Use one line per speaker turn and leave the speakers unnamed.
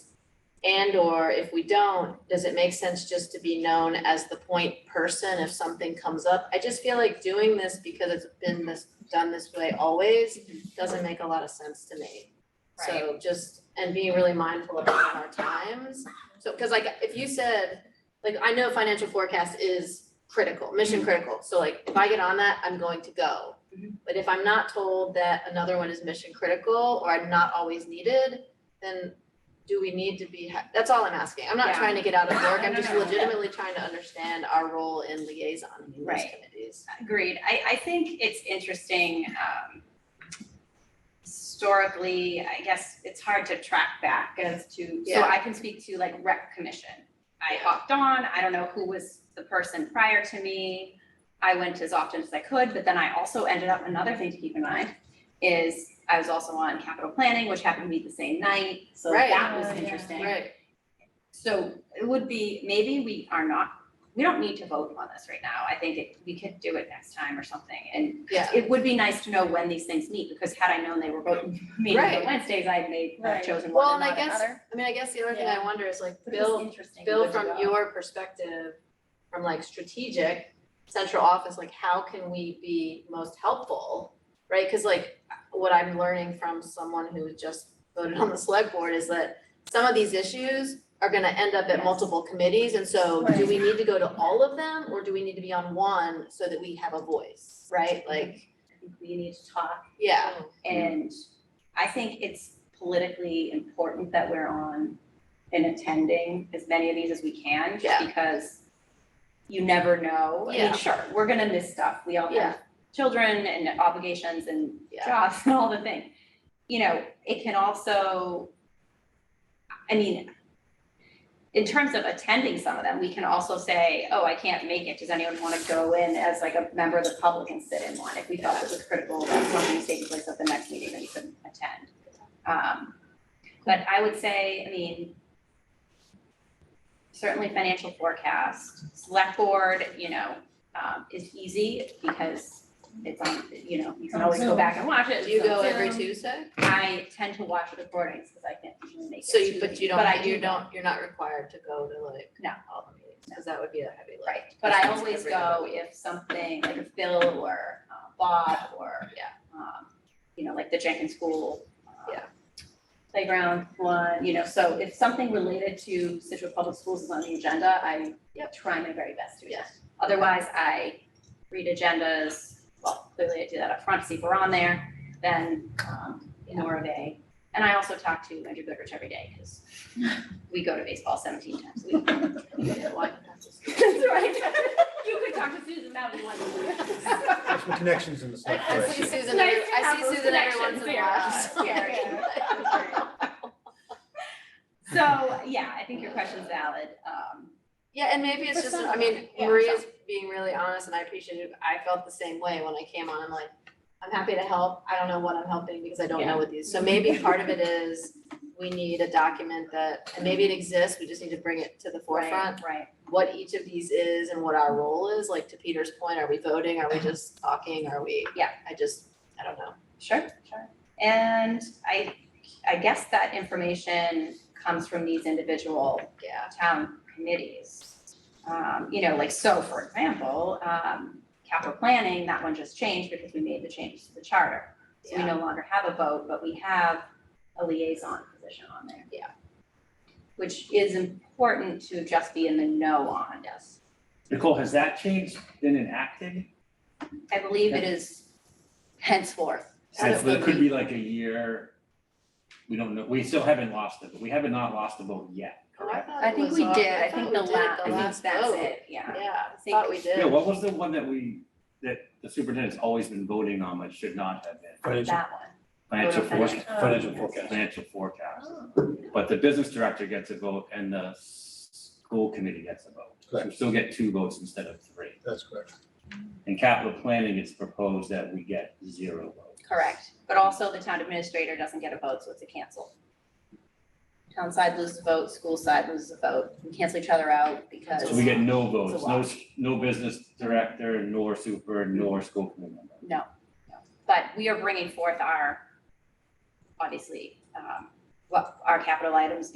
And/or if we don't, does it make sense just to be known as the point person if something comes up? I just feel like doing this because it's been this, done this way always, doesn't make a lot of sense to me. So just, and being really mindful of our times. So, cause like, if you said, like, I know financial forecast is critical,
Mm-hmm.
mission critical. So like, if I get on that, I'm going to go. But if I'm not told that another one is mission critical or I'm not always needed, then do we need to be, ha- that's all I'm asking. I'm not
Yeah.
trying to get out of work. I'm
No,
just
no, no.
legitimately trying to understand our role in liaison in these
Right.
committees.
Agreed. I, I think it's interesting, um, historically, I guess it's hard to track back as to, so
Yeah.
I can speak to like rec commission. I hopped on, I don't know who was the person prior to me. I went as often as I could, but then I also ended up, another thing to keep in mind is I was also on capital planning, which happened to be the same night, so
Right.
that was
Oh, yeah.
interesting.
Right,
So it would be, maybe we are not, we don't need to vote on this right now. I think it, we could do it next time or something. And
yeah,
it would be nice to know when these things meet, because had I known they were voting, meeting
Right.
on Wednesdays, I may have
Right.
chosen
Well,
one
and I
and not
guess-
another.
I mean, I guess the other thing I wonder is like,
But it was
Bill,
interesting.
Bill,
Good to
from
know.
your perspective, from like strategic, central office, like how can we be most helpful? Right, cause like what I'm learning from someone who just voted on the select board is that some of these issues are gonna end up at
Yes.
multiple committees, and so do we need to go to all of them? Or do we need to be on one so that we have a voice,
Mm-hmm.
right? Like,
I think we need to talk
yeah,
and I think it's politically important that we're on and attending as many of these as we can, just
Yeah.
because you never know. I
Yeah.
mean, sure, we're gonna miss stuff. We all
Yeah.
have children and obligations and
Yeah.
jobs and all the things. You know, it can also, I mean, in terms of attending some of them, we can also say, oh, I can't make it. Does anyone wanna go in as like a member of the public and sit in one? If we felt it was critical that something was taking place at the next meeting that you couldn't attend. Um, but I would say, I mean, certainly financial forecast, select board, you know, um, is easy because it's on, you know, you can
On
always go
Zoom.
back and watch it.
do you
It's
go
on
every
Zoom.
Tuesday?
I tend to watch recordings because I can't usually make it.
So you,
to
but
the-
you
I
don't,
do
you don't, you're not required to go to like
No.
all the meetings, cause that would be a heavy lift.
Right, but I
That's
always
every other
go if something, like if Bill or uh, Bob or,
Yeah.
um, you know, like the Jenkins School. uh,
Yeah.
Playground one, you know, so if something related to Situate Public Schools is on the agenda, I
Yep.
try my very best to
Yeah.
attend. Otherwise, I read agendas, well, clearly I do that up front. see if we're on there, then, um, more of a. And I also talk to Andrew Goodrich every day, because we go to baseball seventeen times a week.
Yeah, why not?
That's right. You could talk to Susan about it
There's
once.
some connections in the select
I see
board.
Susan,
Nice
every-
to
I
have
see
those
Susan every once
connections
in a
there.
while.
Yeah. So, yeah, I think your question's valid. Um,
Yeah, and maybe it's
For
just,
some
I
of
mean,
them, yeah.
Maria's being really honest and I appreciate it. I felt the same way when I came on. I'm like, I'm happy to help. I don't know what I'm helping because I don't know what these. So maybe part of it is we need a document that, and maybe it exists, we just need to bring it to the forefront.
right, right.
What each of these is and what our role is, like to Peter's point, are we voting? Are we just talking? Are we?
Yeah.
I just, I don't know.
Sure, sure. And I, I guess that information comes from these individual
Yeah.
town committees. Um, you know, like, so for example, um, capital planning, that one just changed because we made the changes to the charter. So we
Yeah.
no longer have a vote, but we have a liaison position on there.
Yeah.
Which is important to just be in the know on. Yes.
Nicole, has that changed, been enacted?
I believe it is henceforth.
So
Has,
it will
it could be like a year, we don't know, we still haven't lost it, but we haven't not lost the vote yet,
Oh, I
correct?
thought
I
it
think
was
we
all-
did, I
thought
think
we
the
did
last, I think
last
that's
vote.
it, yeah.
Yeah, I
think-
thought we did.
Yeah, what was the one that we, that the superintendent's always been voting on, but should not have been?
Financial,
That one.
Financial forecast, Oh.
financial forecast.
financial forecast. But the business director gets a vote and the s- school committee gets a vote. So we
Correct.
still get two votes instead of three.
That's correct.
In capital planning, it's proposed that we get zero votes.
Correct, but also the town administrator doesn't get a vote, so it's a cancel. Town side loses a vote, school side loses a vote, we cancel each other out because,
So we get no votes,
It's a
no,
lot.
s- no business director, nor super, nor school committee member.
but we are bringing forth our, obviously, um, what our capital items